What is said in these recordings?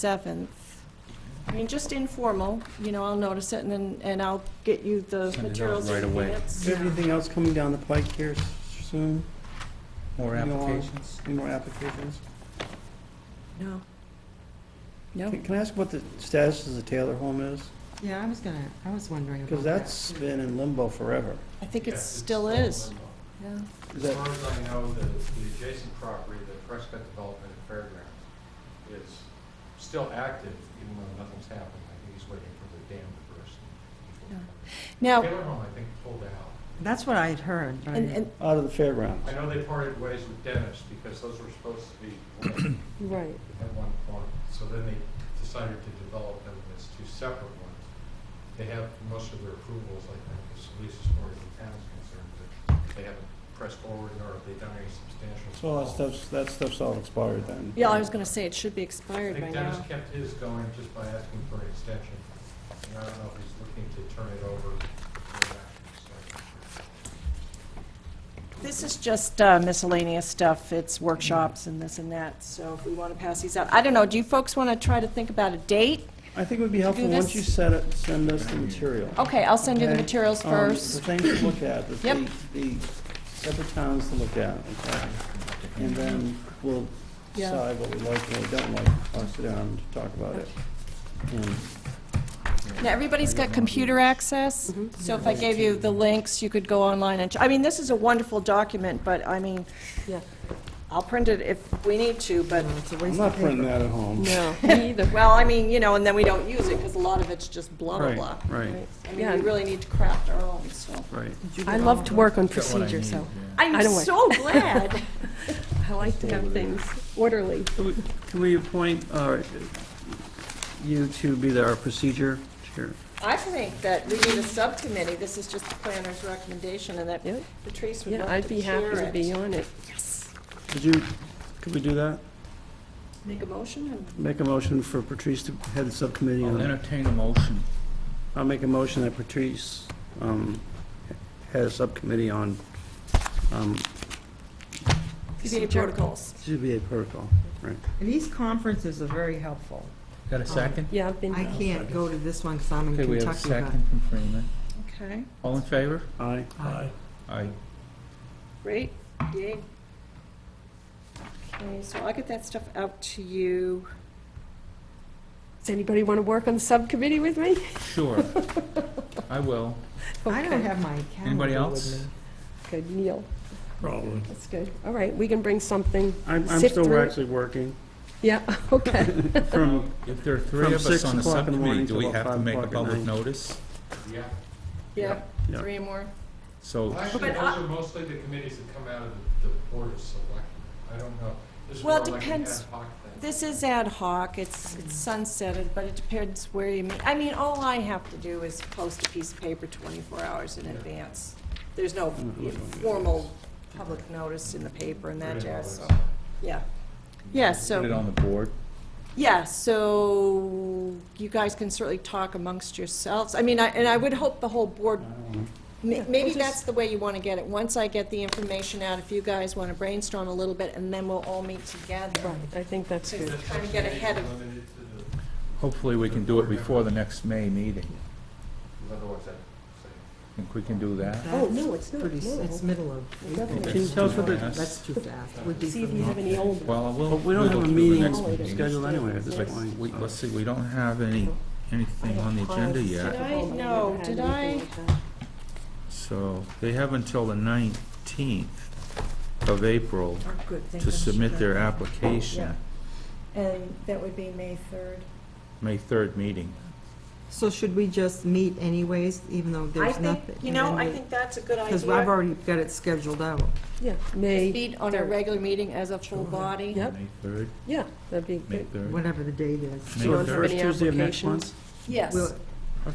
7th. I mean, just informal, you know, I'll notice it, and then, and I'll get you the Send it out materials right in away. advance. Is there anything else coming down the pike here s- soon? More No. applications? Any more applications? No. No. Can can I ask what the status of the Taylor home is? Yeah, I was gonna, I was wondering about Because that. that's been in limbo forever. I think it Yes, still in is. limbo. Yeah. Is As that- far as I know, the, the adjacent property, the Prescott Development and Fairgrounds, is still active, even though nothing's happened. I think he's waiting for the dam to burst. Yeah. before- Now, Taylor Home, I think, pulled out. That's what I had heard, but I and, didn't- and, Out of the fairgrounds. I know they parted ways with Dennis because those were supposed to be linked Right. at one point. So then they decided to develop them as two separate ones. They have most of their approvals, I think, as at least as far as the town's concerned, but they haven't pressed forward nor have they done any substantial. So all that stuff's, that stuff's all expired then? yeah, I was going to say, it should be I expired by think Dennis now. kept his going just by asking for an extension. And I don't know if he's looking to turn it over. or not. This is just uh, miscellaneous stuff, it's workshops and this and that, so if we want to pass these out. I don't know, do you folks want to try to think about a date? I think it would be helpful, Do this? once you set it, send us the material. Okay, I'll send you the Okay. materials Um, first. The things to look at, the, Yep. the the separate towns to look at, okay? And then we'll Yeah. decide what we like and what we don't like, I'll sit down and talk about it. And Now, everybody's got computer access, Mhm. so if I gave you the links, you could go online and, ch- I mean, this is a wonderful document, but I mean, Yeah. I'll print it if we need to, but, No, it's a I'm waste not of printing paper. that at home. No, me either. well, I mean, you know, and then we don't use it, because a lot of it's just blah, blah, Right, blah. right, I Yeah. mean, we really need to craft our own, so. right. I love to work on Got what I procedure, so need, yeah. I'm I don't like- so glad. I like to have things orderly. Can we- Can we appoint uh, you to be the- our procedure chair? I think that we need a subcommittee, this is just the planner's recommendation, and that Yeah. Patrice would Yeah, love I'd to be chair happy to it. be on it. Yes. Could you, could we do that? Make a motion and Make a motion for Patrice to head the subcommittee. I'll on- entertain a motion. I'll make a motion that Patrice um, head a subcommittee on um, CBA protocols. CBA protocol. Right. These conferences are very helpful. Um, Got a second? Yeah, I've been, I can't go to this one because I'm in Okay, we have a Kentucky, but second from Freeman. Okay, All in favor? Aye. Aye. Aye. great, yay. Okay, so I'll get that stuff out to you. does anybody want to work on the subcommittee with me? Sure. I will. I don't Okay. have my Anybody calendar with else? me. Good, Neil, Probably. that's good. All right, we can bring something. I'm I'm Sift still through. actually working Yeah, okay. from, If there are three From of us six on the o'clock in the subcommittee, morning do we till about have to five make a o'clock at public night. notice? Yeah. Yeah, Yeah. three more. So, Well, Actually, But those I- are mostly the committees that come out of the the Board of Selectmen. I don't know. This is Well, more like an ad depends. hoc thing. This is ad hoc, it's it's sunsetted, but it depends where you meet. I mean, all I have to do is post a piece of paper 24 hours in advance. There's no Mm, you know, formal public notice in the paper and that Pretty jazz, so, obvious. yeah. Yeah, put it so, on the board. yeah, so you guys can certainly talk amongst yourselves. I mean, I- and I would hope the whole board Ma- Maybe that's the way you want to get it. Once I get the information out, if you guys want to brainstorm a little bit, and then we'll all meet together. I think that's So good. it's Trying to get ahead of, Limited to Hopefully, we can do it before the next May meeting. the, otherwise I'd say. Think we can do that? Oh, no, it's not, Pretty, s- no. it's middle of April. Can you tell us what the, That's too fast. Would be See if from you have any old ones. Well, we'll. but we don't we'll have go a through the meeting next scheduled anyway at this Yes. point. We, let's see, we don't have any, anything on the agenda Did yet, I- no, Never had did anything I- like that. so they have until the nineteenth of April Oh, to submit their application, and that would be May 3rd. May third meeting. So should we just meet anyways, even though I there's nothing? think, you know, I think that's a good Because I've idea. already got it scheduled out. Yeah, May, Meet on a regular meeting as a full body. Yep. May third, yeah, that'd be May good. third. whatever the date is. May So the have first any Tuesday of next month? applications? Yes. We'll,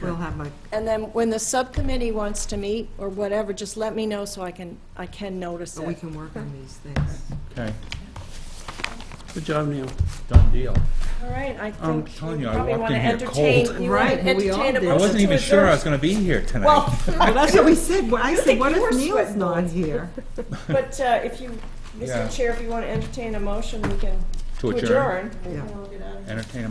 we'll have like, And then when the subcommittee wants to meet or whatever, just let me know so I can, I can notice we it. can work on these things. Okay, Good job, Neil. done deal. All right, I I'm think telling you you, I probably walked want to in here entertain, cold. you want to Right, we all entertain a did. I motion wasn't to even sure I adjourn. was gonna be here tonight. Well, Well, that's what we said. Well, I think said, what you were if Neil's sweating not bullets. here? But uh, if you, Yeah. Mr. Chair, if you want to entertain a motion, we can To to adjourn. adjourn. and Yeah. we'll get out of here. Entertain a